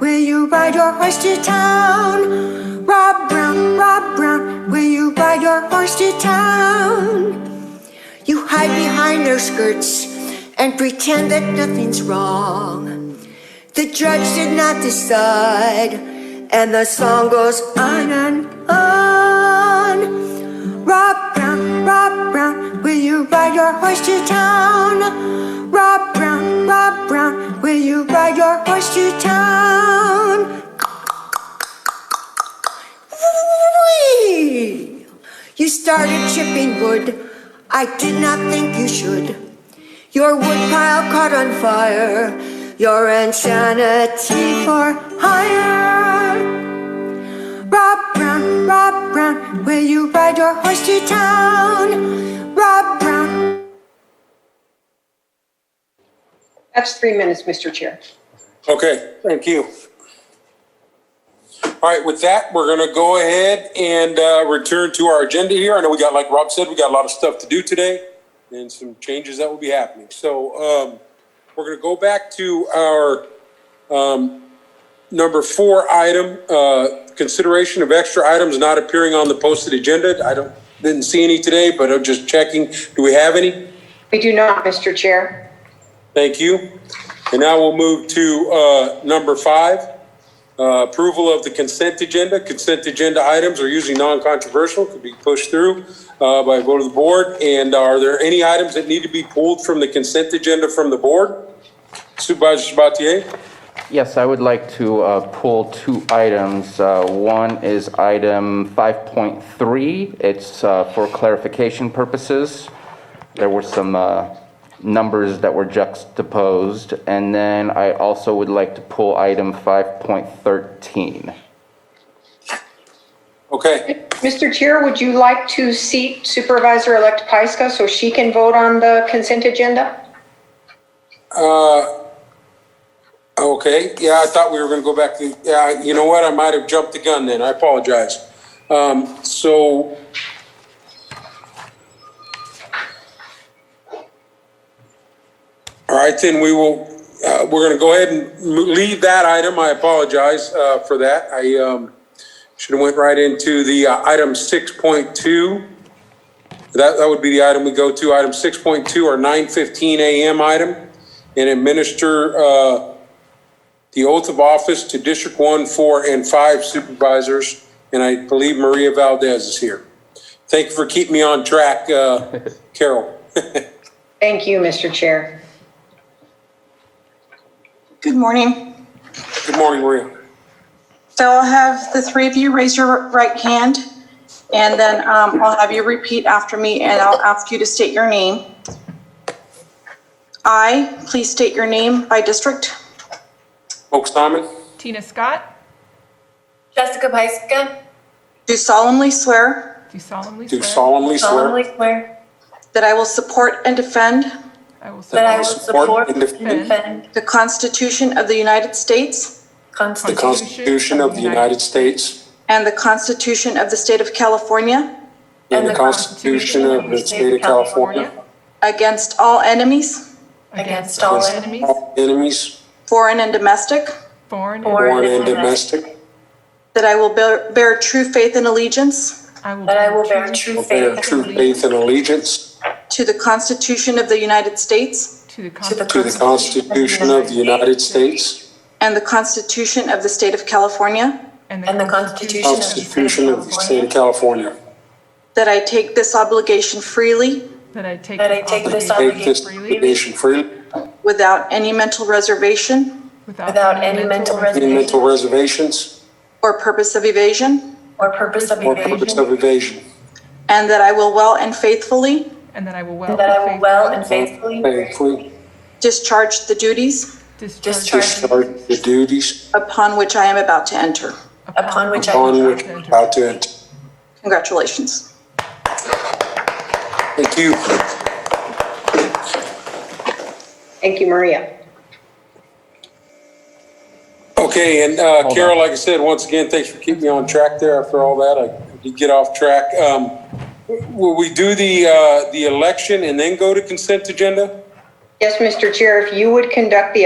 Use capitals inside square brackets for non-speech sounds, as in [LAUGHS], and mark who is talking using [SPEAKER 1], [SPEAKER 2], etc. [SPEAKER 1] ride your horse to town? Rob Brown, Rob Brown, will you ride your horse to town? You hide behind their skirts and pretend that nothing's wrong. The judge did not decide, and the song goes on and on. Rob Brown, Rob Brown, will you ride your horse to town? Rob Brown, Rob Brown, will you ride your horse to town? Whee! You started chipping wood. I did not think you should. Your woodpile caught on fire. Your insanity for hire. Rob Brown, Rob Brown, will you ride your horse to town? Rob Brown.
[SPEAKER 2] That's three minutes, Mr. Chair.
[SPEAKER 3] Okay, thank you. All right, with that, we're going to go ahead and uh, return to our agenda here. I know we got, like Rob said, we got a lot of stuff to do today and some changes that will be happening. So um, we're going to go back to our um, number four item, uh, consideration of extra items not appearing on the posted agenda. I don't, didn't see any today, but I'm just checking. Do we have any?
[SPEAKER 2] We do not, Mr. Chair.
[SPEAKER 3] Thank you. And now we'll move to uh, number five, uh, approval of the consent agenda. Consent agenda items are usually non-controversial, could be pushed through uh, by a vote of the board. And are there any items that need to be pulled from the consent agenda from the board? Supervisor Sabatier?
[SPEAKER 4] Yes, I would like to uh, pull two items. Uh, One is item 5.3. It's uh, for clarification purposes. There were some uh, numbers that were juxtaposed. And then I also would like to pull item 5.13.
[SPEAKER 3] Okay,
[SPEAKER 2] Mr. Chair, would you like to seat Supervisor-elect Pyska so she can vote on the consent agenda?
[SPEAKER 3] okay. Yeah, I thought we were going to go back to, yeah, you know what? I might have jumped the gun then. I apologize. Um, So All right, then we will, uh, we're going to go ahead and mo- leave that item. I apologize uh, for that. I um, should have went right into the uh, item 6.2. That, that would be the item we go to, item 6.2 or 9:15 a.m. item, and administer uh, the oath of office to District 1, 4, and 5 supervisors, and I believe Maria Valdez is here. Thank you for keeping me on track, uh, Carol. [LAUGHS]
[SPEAKER 2] Thank you, Mr. Chair.
[SPEAKER 5] Good morning.
[SPEAKER 3] Good morning, Maria.
[SPEAKER 5] So I'll have the three of you raise your right hand, and then um, I'll have you repeat after me, and I'll ask you to state your name. I, please state your name by district.
[SPEAKER 3] Folks, Simon?
[SPEAKER 6] Tina Scott,
[SPEAKER 7] Jessica Pyska,
[SPEAKER 5] Do solemnly swear
[SPEAKER 6] do solemnly
[SPEAKER 3] Do
[SPEAKER 6] swear
[SPEAKER 3] solemnly
[SPEAKER 7] solemnly
[SPEAKER 3] swear
[SPEAKER 7] swear
[SPEAKER 5] that I will support and defend
[SPEAKER 6] I will
[SPEAKER 7] that I
[SPEAKER 6] support
[SPEAKER 7] will
[SPEAKER 3] Support
[SPEAKER 7] support
[SPEAKER 3] and
[SPEAKER 7] and defend
[SPEAKER 5] the Constitution of the United States
[SPEAKER 3] the
[SPEAKER 7] Constitution
[SPEAKER 3] Constitution of the United States
[SPEAKER 5] and the Constitution of the State of California
[SPEAKER 3] and the Constitution of the State of California
[SPEAKER 5] against all enemies,
[SPEAKER 7] against all
[SPEAKER 3] against
[SPEAKER 7] enemies,
[SPEAKER 3] all enemies,
[SPEAKER 5] foreign and domestic,
[SPEAKER 6] foreign
[SPEAKER 7] Foreign.
[SPEAKER 3] foreign and domestic,
[SPEAKER 5] that I will bear bear true faith and allegiance
[SPEAKER 6] and
[SPEAKER 7] that I will bear true
[SPEAKER 3] will bear
[SPEAKER 7] faith
[SPEAKER 3] true
[SPEAKER 7] and allegiance
[SPEAKER 3] faith and allegiance
[SPEAKER 5] to the Constitution of the United States
[SPEAKER 6] to the
[SPEAKER 7] to the
[SPEAKER 6] Constitution
[SPEAKER 3] to the Constitution of the United States,
[SPEAKER 5] And the Constitution of the State of California.
[SPEAKER 7] and the
[SPEAKER 3] Constitution of the State of California.
[SPEAKER 5] That I take this obligation freely
[SPEAKER 6] That I take
[SPEAKER 7] that I take
[SPEAKER 6] this
[SPEAKER 7] this
[SPEAKER 3] Take
[SPEAKER 6] obligation
[SPEAKER 3] this
[SPEAKER 6] freely
[SPEAKER 3] obligation freely,
[SPEAKER 5] without any mental reservation
[SPEAKER 7] without any mental
[SPEAKER 3] any
[SPEAKER 7] reservation
[SPEAKER 3] mental reservations
[SPEAKER 5] or purpose of evasion.
[SPEAKER 7] or purpose of
[SPEAKER 3] or purpose
[SPEAKER 7] evasion,
[SPEAKER 3] of evasion,
[SPEAKER 5] And that I will well and faithfully
[SPEAKER 6] And that I will well.
[SPEAKER 7] and that I will
[SPEAKER 6] and
[SPEAKER 7] well and faithfully
[SPEAKER 3] faithfully
[SPEAKER 5] discharge the duties
[SPEAKER 6] faithfully
[SPEAKER 7] discharge
[SPEAKER 3] discharge the duties
[SPEAKER 5] upon which I am about to enter.
[SPEAKER 7] upon which I
[SPEAKER 3] upon which we're about to enter.
[SPEAKER 5] Congratulations.
[SPEAKER 3] Thank you.
[SPEAKER 2] Thank you, Maria.
[SPEAKER 3] Okay, and uh,
[SPEAKER 4] Hold
[SPEAKER 3] Carol,
[SPEAKER 4] on.
[SPEAKER 3] like I said, once again, thanks for keeping me on track there after all that. I did get off track. Um, Will we do the, uh, the election and then go to consent agenda?
[SPEAKER 2] Yes, Mr. Chair, if you would conduct the